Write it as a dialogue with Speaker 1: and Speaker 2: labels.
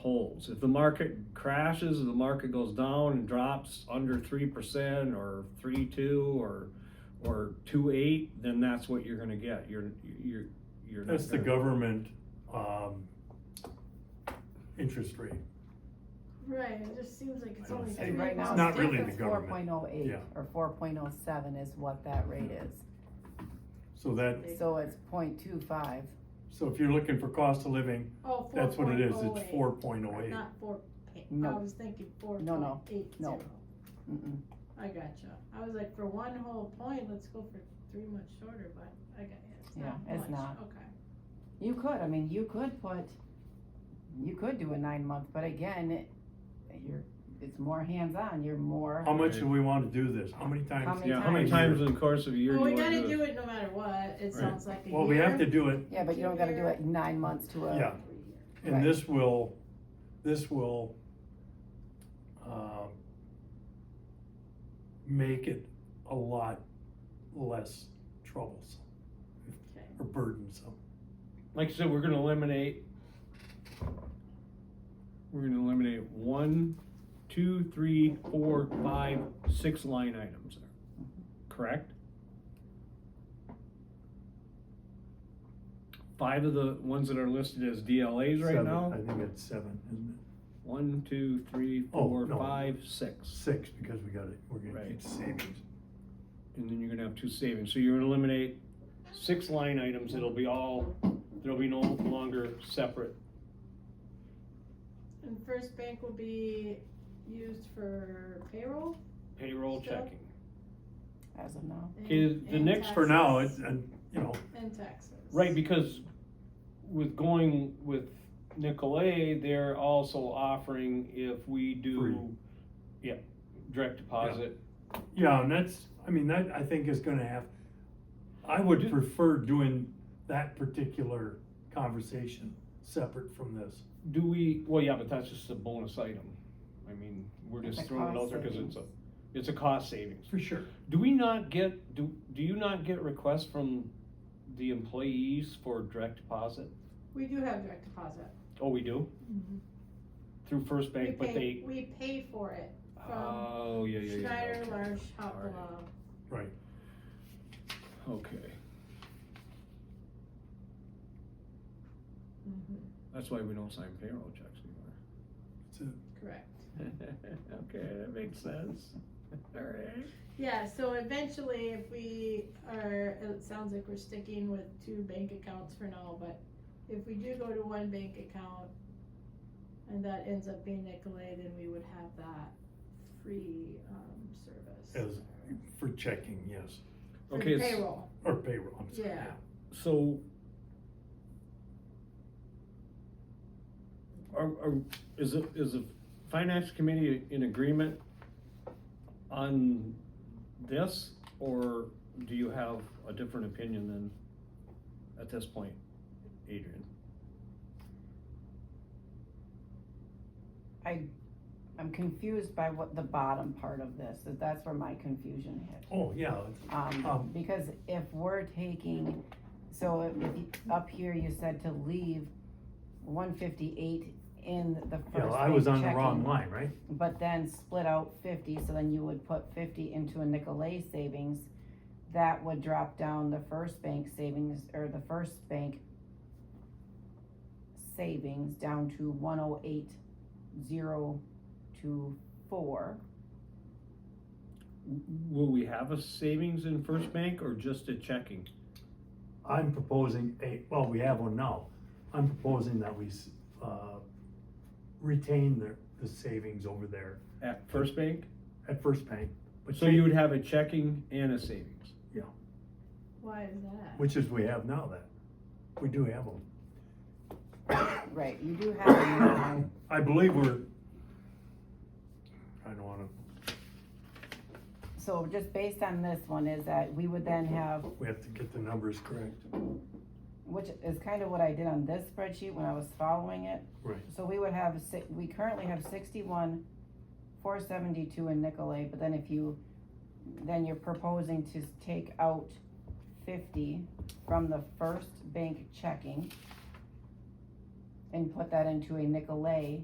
Speaker 1: holds. If the market crashes, if the market goes down and drops under three percent or three two or or two eight, then that's what you're gonna get. You're you're you're not
Speaker 2: That's the
Speaker 1: gonna-
Speaker 2: government, um, interest rate,
Speaker 3: Right, it just seems like it's
Speaker 2: I don't see
Speaker 3: only
Speaker 2: it.
Speaker 3: three
Speaker 4: And right now,
Speaker 2: It's not
Speaker 3: bucks.
Speaker 4: it's
Speaker 2: really
Speaker 4: different,
Speaker 2: the
Speaker 4: four
Speaker 2: government.
Speaker 4: point oh eight
Speaker 2: Yeah.
Speaker 4: or four point oh seven is what that rate is,
Speaker 2: so that,
Speaker 4: so it's point two five.
Speaker 2: so if you're looking for cost of living,
Speaker 3: Oh,
Speaker 2: that's what it is, it's
Speaker 3: 4.08.
Speaker 2: four point oh eight.
Speaker 3: Not four, pa- I
Speaker 4: No.
Speaker 3: was thinking four
Speaker 4: No,
Speaker 3: point
Speaker 4: no,
Speaker 3: eight
Speaker 4: no.
Speaker 3: zero.
Speaker 4: Mm-mm.
Speaker 3: I gotcha. I was like, for one whole point, let's go for three much shorter, but I got it. It's
Speaker 4: Yeah,
Speaker 3: not
Speaker 4: it's
Speaker 3: much.
Speaker 4: not.
Speaker 3: Okay.
Speaker 4: You could, I mean, you could put, you could do a nine month, but again, it, you're, it's more hands-on, you're more,
Speaker 2: How much do we wanna do this? How many
Speaker 4: How
Speaker 2: times?
Speaker 4: many
Speaker 1: Yeah, how many times in the course of a year do
Speaker 3: Well, we
Speaker 1: you wanna
Speaker 3: gotta
Speaker 1: do it?
Speaker 3: do it no matter what. It sounds like a year.
Speaker 2: Well, we have to do it,
Speaker 4: yeah, but you don't gotta do it nine months to a.
Speaker 2: yeah,
Speaker 3: Three years.
Speaker 2: and
Speaker 4: Right.
Speaker 2: this will, this will, um, make it a lot less troublesome
Speaker 3: Okay.
Speaker 2: or burdensome.
Speaker 1: Like I said, we're gonna eliminate, we're gonna eliminate one, two, three, four, five, six line items there, correct? Five of the ones that are listed as DLAs right
Speaker 2: Seven,
Speaker 1: now,
Speaker 2: I think it's seven, isn't it?
Speaker 1: one, two, three,
Speaker 2: Oh,
Speaker 1: four,
Speaker 2: no.
Speaker 1: five, six.
Speaker 2: Six, because we got it, we're gonna
Speaker 1: Right.
Speaker 2: keep savings.
Speaker 1: And then you're gonna have two savings, so you're gonna eliminate six line items, it'll be all, there'll be no longer separate
Speaker 3: And First Bank will be used for payroll
Speaker 1: payroll
Speaker 3: Still?
Speaker 1: checking.
Speaker 4: As of now,
Speaker 3: and.
Speaker 1: Okay, the
Speaker 3: and
Speaker 1: next-
Speaker 2: For now, it's,
Speaker 3: taxes.
Speaker 2: and, you know,
Speaker 3: And taxes.
Speaker 1: Right, because with going with Nicolay, they're also offering if we
Speaker 2: Free.
Speaker 1: do, yeah, direct deposit.
Speaker 2: yeah, and that's, I mean, that, I think is gonna have, I would prefer doing that particular conversation separate from this.
Speaker 1: Do we, well, yeah, but that's just a bonus item. I mean, we're
Speaker 4: It's
Speaker 1: just
Speaker 4: a
Speaker 1: throwing it out
Speaker 4: cost
Speaker 1: there because it's a,
Speaker 4: savings.
Speaker 1: it's a cost savings.
Speaker 2: For sure.
Speaker 1: Do we not get, do, do you not get requests from the employees for direct deposit?
Speaker 3: We do have direct deposit.
Speaker 1: Oh, we do? Through First
Speaker 3: We
Speaker 1: Bank, but
Speaker 3: pay,
Speaker 1: they,
Speaker 3: we pay for it. from
Speaker 1: oh, yeah, yeah, yeah.
Speaker 3: Schneider, Marsh,
Speaker 1: Alright.
Speaker 3: Hopla.
Speaker 2: Right,
Speaker 1: Okay,
Speaker 3: Mm-hmm.
Speaker 1: that's why we don't sign payroll checks anymore.
Speaker 2: that's it.
Speaker 3: Correct.
Speaker 1: Okay, that makes sense. Alright.
Speaker 3: Yeah, so eventually if we are, it sounds like we're sticking with two bank accounts for now, but if we do go to one bank account and that ends up being Nicolay, then we would have that free, um, service.
Speaker 2: As, for checking, yes,
Speaker 3: For
Speaker 1: Okay, s-
Speaker 3: Payroll,
Speaker 2: or payroll, I'm sorry,
Speaker 3: Yeah.
Speaker 2: yeah.
Speaker 1: So. Are, are, is it, is the finance committee in agreement on this, or do you have a different opinion than at this point, Adrian?
Speaker 4: I'm confused by what the bottom part of this, is that's where my confusion hit.
Speaker 2: Oh, yeah, it's- Um,
Speaker 4: Um, because if we're taking, so if, you- up here you said to leave one fifty-eight in the first.
Speaker 2: yeah, I was
Speaker 4: bank
Speaker 2: on the wrong
Speaker 4: checking,
Speaker 2: line, right?
Speaker 4: But then split out fifty, so then you would put fifty into a Nicolay savings. That would drop down the first bank savings, or the first bank savings down to one oh eight zero two four.
Speaker 1: Will we have a savings in First Bank or just a checking?
Speaker 2: I'm proposing a, well, we have one now. I'm proposing that we, s- uh, retain the, the savings over there
Speaker 1: At First Bank?
Speaker 2: at First Bank. but
Speaker 1: So you would have a checking and a savings?
Speaker 3: why is that?
Speaker 2: Which is we have now that, we do have them.
Speaker 4: Right, you do have a Nicolay
Speaker 2: I believe we're, I don't wanna,
Speaker 4: So just based on this one is that we would then have,
Speaker 2: we have to get the numbers correct.
Speaker 4: which is kind of what I did on this spreadsheet when I was following it.
Speaker 2: Right.
Speaker 4: So we would have, si- we currently have sixty-one, four seventy-two in Nicolay, but then if you, then you're proposing to take out fifty from the first bank checking and put that into a Nicolay